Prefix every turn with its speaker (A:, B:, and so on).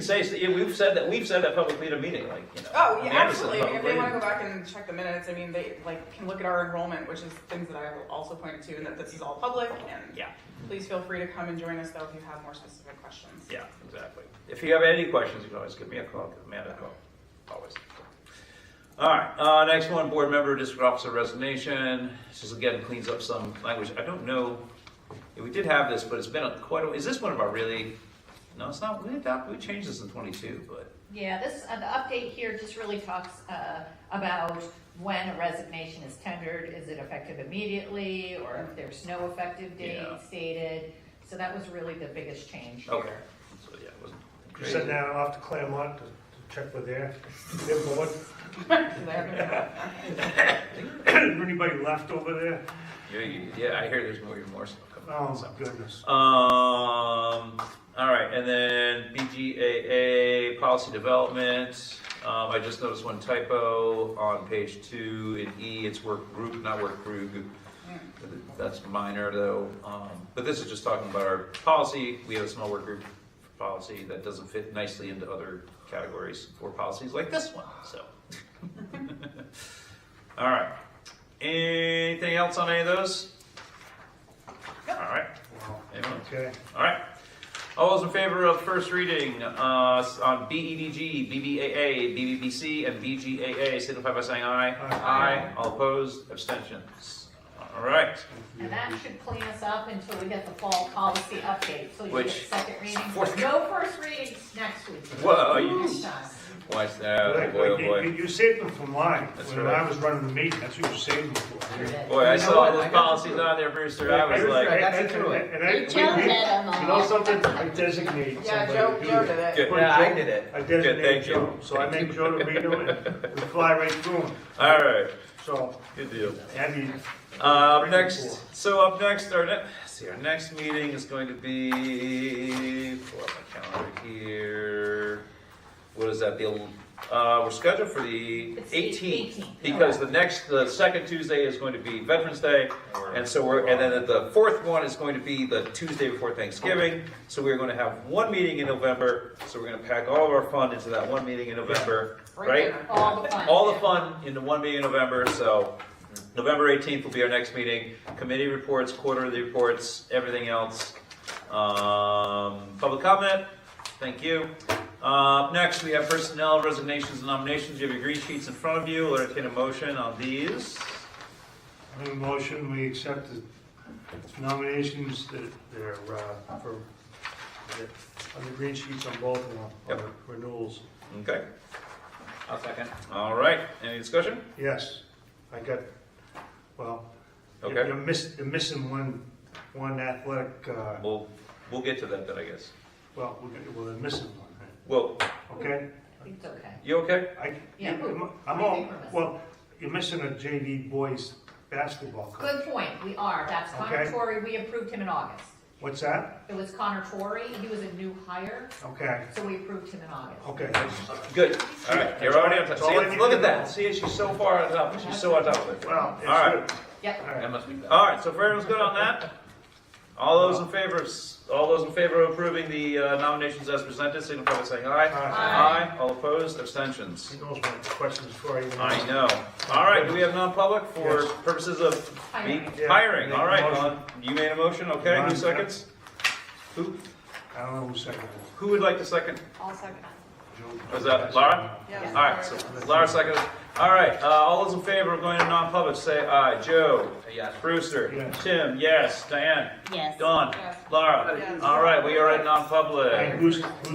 A: Say, say- yeah, we've said that, we've said that publicly at a meeting, like, you know.
B: Oh,
A: the
B: yeah,
A: Anderson
B: absolutely. If they
A: publicly.
B: want to go back and check the minutes, I mean, they like can look at our enrollment, which is things that I also pointed to, and that this is all public. And
A: Yeah,
B: please feel free to come and join us though if you have more specific questions.
A: yeah, exactly. If you have any questions, you can always give me a call, give Amanda a call, always. All right, uh, next one, board member, district officer resignation. This is again cleans up some language. I don't know, yeah, we did have this, but it's been a- quite a, is this one of our really, no, it's not, we adopted, we changed this in twenty-two, but,
C: Yeah, this, uh, the update here just really talks, uh, about when a resignation is tendered, is it effective immediately, or if there's no effective date
A: Yeah.
C: stated. So that was really the biggest change here.
A: okay. So, yeah, it wasn't
D: You
A: crazy.
D: sent that off to Claremont to to check with their, their board,
B: Because I have no-
D: anybody left over there?
A: Yeah, you- yeah, I hear there's more, more stuff coming. out, so.
D: Oh, goodness.
A: Um, all right, and then BGAA policy development. Um, I just noticed one typo on page two in E. It's work group, not work group. That's minor though. Um, but this is just talking about our policy. We have a small work group for policy that doesn't fit nicely into other categories for policies like this one. So, all right. Anything else on any of those? All right.
D: Wow.
A: Anyone?
D: Okay,
A: All right. All those in favor of first reading uh, on BEDG, BBAA, BBBC, and BGAA, signify by saying aye.
D: Aye.
A: All opposed, abstentions. All right.
C: And that should clean us up until we get the fall policy update, so you get
A: Which-
C: second reading.
A: Fourth-
C: No first readings next week.
A: Whoa, you-
C: Next time.
A: Watch that.
D: Like,
A: boy, oh
D: like,
A: boy.
D: you you saved them from mine,
A: That's
D: when
A: right.
D: I was running the meeting, that's what you saved them for.
A: Boy, I
E: You know
A: saw
E: what?
A: those
E: I got
A: policies
E: through.
A: on there, Brewster. I was
E: I
A: like,
E: got you through it.
D: And I,
F: You tell
D: we- we-
F: that on the-
D: you know something, I designate somebody
B: Yeah,
D: to
B: Joe,
D: do
B: Joe did
D: that.
A: Good.
D: Put
E: Yeah, I
D: Joe-
E: did it.
D: I
A: Good, thank
D: designate
A: you.
D: Joe, so I make Joe to read them, and we fly right through them,
A: all right,
D: so,
A: good deal.
D: I mean.
A: Uh, Up
D: three and
A: next, so up next, our next, see, our next meeting is going to be, pull up my calendar here. What is that, the, el- uh, we're scheduled for the
C: It's the
A: eighteenth,
C: 18th.
A: because the next, the second Tuesday is going to be Veterans Day, and so we're, and then the fourth one is going to be the Tuesday before Thanksgiving, so we're gonna have one meeting in November, so we're gonna pack all of our fun into that one meeting in November, right?
B: there.
C: All the fun.
A: all the fun into one meeting in November, so November 18th will be our next meeting. Committee reports, quarterly reports, everything else. Um, Public comment, thank you. Uh, up Next, we have personnel resignations and nominations. You have your green sheets in front of you. We'll entertain a motion on these.
D: I Make a motion, we accept the nominations that that are, uh, for, that- on the green sheets on both of them, on
A: Yep.
D: the renewals.
A: Okay,
E: I'll second.
A: all right, any discussion?
D: Yes, I got, well, you-
A: Okay.
D: you're miss you're missing one, one athletic, uh,
A: We'll, we'll get to that then, I guess.
D: well, we're gonna- well, they're missing one, right?
A: Well,
D: okay?
C: It's okay.
A: you okay?
D: I,
C: Yeah.
D: you- I'm all, well, you're missing a JV boys basketball coach.
C: Good point, we are. That's Connor
D: Okay.
C: Torrey, we approved him in August.
D: What's that?
C: It was Connor Torrey, he was a new hire,
D: Okay,
C: so we approved him in August.
D: okay.
A: Good, all right, you're already on time.
D: That's all I
A: See,
D: need
A: look
D: to
A: at
D: know.
A: that, see, she's so far on top, she's so on top of it.
D: Well, it's
A: All right.
D: good.
C: Yep.
D: All right.
E: must be bad.
A: All right, so if everyone's good on that, all those in favor, all those in favor of approving the uh, nominations as presented, signify by saying aye.
D: Aye.
A: All opposed, abstentions.
D: He knows my questions for you.
A: I know. All right, do we have non-public for
D: Yes.
A: purposes of
C: Hiring.
A: me- hiring? All right,
D: Make a motion.
A: Ron, you made a motion, okay, who
D: Ron,
A: seconds? Who,
D: I don't know who seconded
A: who would like to second?
F: I'll second.
D: it.
A: Was that Laura?
B: Yeah.
A: All right, so Lara seconded. All right, uh, all those in favor of going to non-public, say aye. Joe?
E: Yes.
A: Brewster?
D: Yes.
A: Tim? Yes. Diane?
F: Yes.
A: Don?
B: Yes.
A: Laura?
B: Yes.
A: All right, we are in non-public.
D: Hey, who's, who's